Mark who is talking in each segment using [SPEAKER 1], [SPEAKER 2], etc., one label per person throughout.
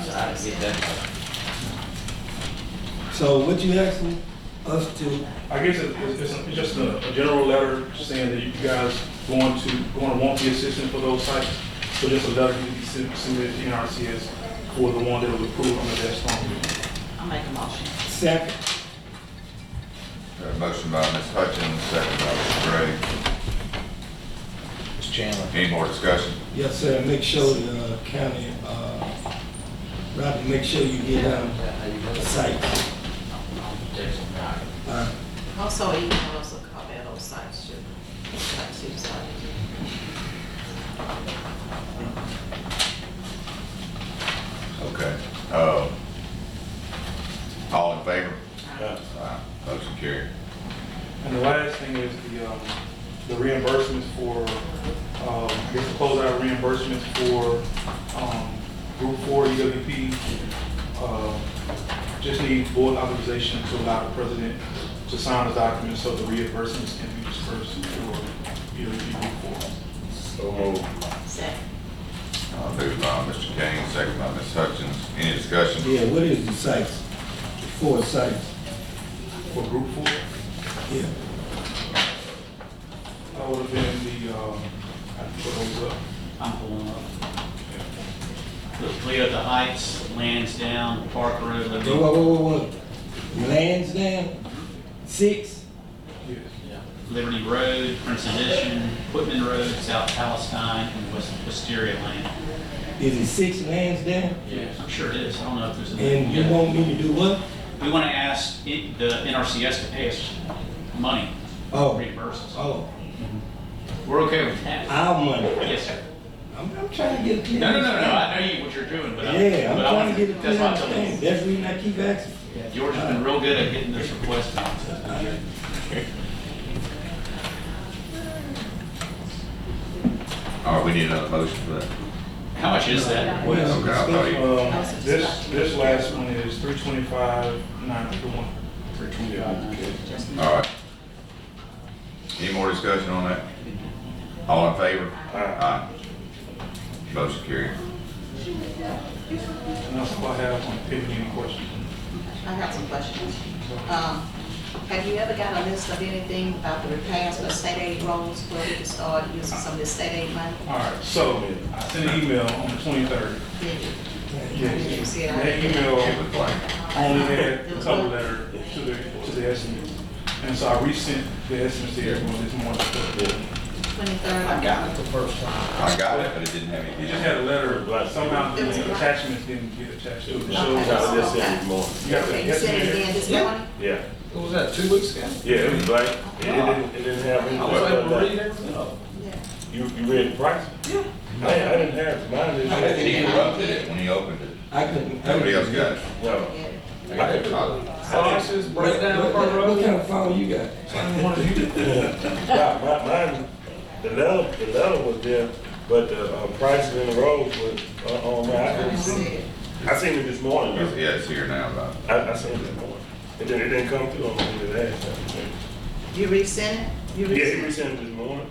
[SPEAKER 1] have to get that done.
[SPEAKER 2] So what you asking us to,
[SPEAKER 3] I guess it- it's, it's it's just a, a general letter saying that you guys going to, going to want the assistance for those sites. So just a letter to be sent- submitted to NRCS for the one that was approved under that storm.
[SPEAKER 4] I'll make a motion.
[SPEAKER 2] second,
[SPEAKER 5] Got a motion by Ms. Hutchins, second by Mr.
[SPEAKER 1] Mr. Chandler.
[SPEAKER 5] Gray. Any more discussion?
[SPEAKER 2] yes, sir, make sure the county, uh, Roger, make sure you get down the Uh, site. All right.
[SPEAKER 4] Also, Oh, you can also call that those sites too. Like she was talking to.
[SPEAKER 5] Okay. Uh, All in favor?
[SPEAKER 3] Uh,
[SPEAKER 5] Aye. Motion carried.
[SPEAKER 3] And the last thing is the, um, the reimbursements for, um, I guess the closeout reimbursements for, um, Group Four EWP. Uh, Just need board authorization to allow the president to sign the documents so the reimbursements can be dispersed for EWP Group Four.
[SPEAKER 4] Second.
[SPEAKER 5] Uh, Moved by Mr. Gaines, second by Ms. Hutchins. Any discussion?
[SPEAKER 2] Yeah, what is the sites? Four sites,
[SPEAKER 3] For Group Four,
[SPEAKER 2] yeah.
[SPEAKER 3] that would have been the, um, I have to put those up.
[SPEAKER 6] I'm pulling up. The Cleota Heights, Lansdowne, Park Road,
[SPEAKER 2] Whoa,
[SPEAKER 6] Liberty,
[SPEAKER 2] whoa, whoa, whoa. Lansdowne, six,
[SPEAKER 3] Yes.
[SPEAKER 6] Liberty Road, Prince Edition, Whitman Road, South Palestine, and West Wisteria Lane.
[SPEAKER 2] is it six Lansdowne?
[SPEAKER 3] Yes.
[SPEAKER 6] I'm sure it is, I don't know if there's. a-
[SPEAKER 2] And you want me to do what?
[SPEAKER 6] We want to ask it- the NRCS to pay us money,
[SPEAKER 2] Oh,
[SPEAKER 6] reimburse us.
[SPEAKER 2] oh,
[SPEAKER 6] We're okay with that.
[SPEAKER 2] our money.
[SPEAKER 6] Yes, sir.
[SPEAKER 2] I'm, I'm trying to get a clear.
[SPEAKER 6] No, no, no, no,
[SPEAKER 2] understanding.
[SPEAKER 6] I know you, what you're doing, but. I-
[SPEAKER 2] Yeah, I'm
[SPEAKER 6] but I
[SPEAKER 2] trying
[SPEAKER 6] want-
[SPEAKER 2] to get a
[SPEAKER 6] That's
[SPEAKER 2] clear
[SPEAKER 6] why I'm telling
[SPEAKER 2] understanding.
[SPEAKER 6] you.
[SPEAKER 2] That's the reason I keep asking.
[SPEAKER 6] George has been real good at getting this request out. so-
[SPEAKER 5] All right, we need another motion for that.
[SPEAKER 6] How much is that?
[SPEAKER 2] What is
[SPEAKER 5] Okay, I thought you,
[SPEAKER 3] Um, this, this last one is three twenty-five, nine oh fifty-one.
[SPEAKER 6] For twenty-five.
[SPEAKER 5] all right. Any more discussion on that? All in favor? Aye. Motion carried.
[SPEAKER 3] And that's all I have on pending any questions.
[SPEAKER 4] I have some questions. Um, have you ever got a list of anything about the repairs for state aid roads where we can start using some of the state aid money?
[SPEAKER 3] All right, so I sent an email on the twenty-third.
[SPEAKER 4] Did you? Did you
[SPEAKER 3] Yes.
[SPEAKER 4] see
[SPEAKER 3] And That
[SPEAKER 4] it?
[SPEAKER 3] email
[SPEAKER 5] It was blank.
[SPEAKER 3] only had the cover letter to the, to the estimates. And so I resent the estimates to everyone this morning.
[SPEAKER 4] Twenty-third?
[SPEAKER 1] I got it the first time.
[SPEAKER 5] I got it, but it didn't have
[SPEAKER 3] It
[SPEAKER 5] any.
[SPEAKER 3] just had a letter, somehow the attachments didn't get attached to it. So
[SPEAKER 4] Okay.
[SPEAKER 7] Not this anymore.
[SPEAKER 3] you got the
[SPEAKER 4] Okay, you said it again
[SPEAKER 3] estimate.
[SPEAKER 4] this morning?
[SPEAKER 7] Yeah,
[SPEAKER 1] What was that, two weeks ago?
[SPEAKER 7] yeah, it was blank. It didn't, it didn't have any. uh,
[SPEAKER 1] I was able to read everything.
[SPEAKER 6] né?
[SPEAKER 4] Yeah.
[SPEAKER 7] You, you read the price?
[SPEAKER 1] Yeah.
[SPEAKER 7] I, I didn't have, mine didn't have
[SPEAKER 5] He
[SPEAKER 7] any.
[SPEAKER 5] interrupted it when he opened it.
[SPEAKER 2] I couldn't.
[SPEAKER 5] Nobody else got it.
[SPEAKER 7] No.
[SPEAKER 4] Yeah.
[SPEAKER 5] I got a copy.
[SPEAKER 1] Slices,
[SPEAKER 2] What,
[SPEAKER 1] breakdown,
[SPEAKER 2] what,
[SPEAKER 1] front
[SPEAKER 2] what what
[SPEAKER 1] row.
[SPEAKER 2] kind of phone you got?
[SPEAKER 7] My, my, mine, the letter, the letter was there, but the uh, prices in the road was, uh, on my, I couldn't see. it. I seen it this morning, though.
[SPEAKER 5] Yeah, it's here now, though.
[SPEAKER 7] I, I seen it this morning. It didn't, it didn't come through on me today. so.
[SPEAKER 4] You resent it? You
[SPEAKER 7] Yeah, he
[SPEAKER 4] resent it?
[SPEAKER 7] resent it this morning.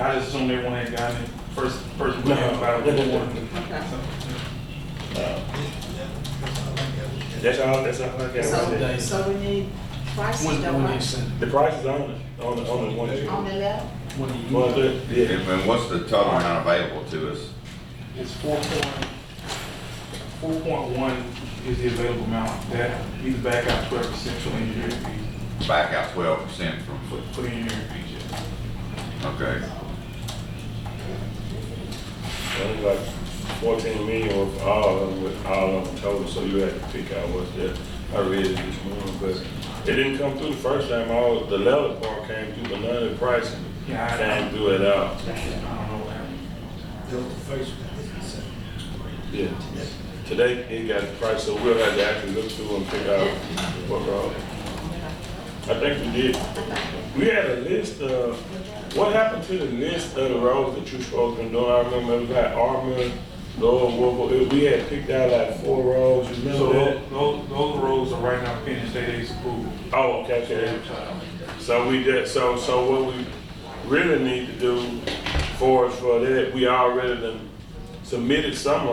[SPEAKER 3] I just assumed everyone had gotten it first, first.
[SPEAKER 7] No.
[SPEAKER 3] about it this morning.
[SPEAKER 4] Okay.
[SPEAKER 7] That's all, that's all I got.
[SPEAKER 4] So, so we need prices, don't we?
[SPEAKER 7] The price is on it, on the, on the one.
[SPEAKER 4] On the left?
[SPEAKER 7] One, two, yeah.
[SPEAKER 5] And and what's the total amount available to us?
[SPEAKER 3] It's four point, four point one is the available amount, that either back out twelve percent for engineering fees,
[SPEAKER 5] Back out twelve percent from,
[SPEAKER 3] for, for engineering fees, yeah.
[SPEAKER 5] okay.
[SPEAKER 7] Only like fourteen million was for all of them, with all of them total, so you had to pick out what's there. I read it this morning, but it didn't come through the first time, all, the level part came through, but none of the pricing
[SPEAKER 3] Yeah, I-
[SPEAKER 7] came through at all.
[SPEAKER 3] I don't know what happened.
[SPEAKER 2] That was the first one.
[SPEAKER 7] Yeah. Today, it got the price, so we'll have to actually look through and pick out what wrong. I think we did, we had a list of, what happened to the list of the roads that you supposed to do? I remember it was like Armour, Lower Wolfville, we had picked out like four roads, you
[SPEAKER 3] So
[SPEAKER 7] remember that?
[SPEAKER 3] those, those those roads are right now finished, they, they's approved.
[SPEAKER 7] Oh, okay, okay. So we did, so, so what we really need to do for us for that, we already done submitted some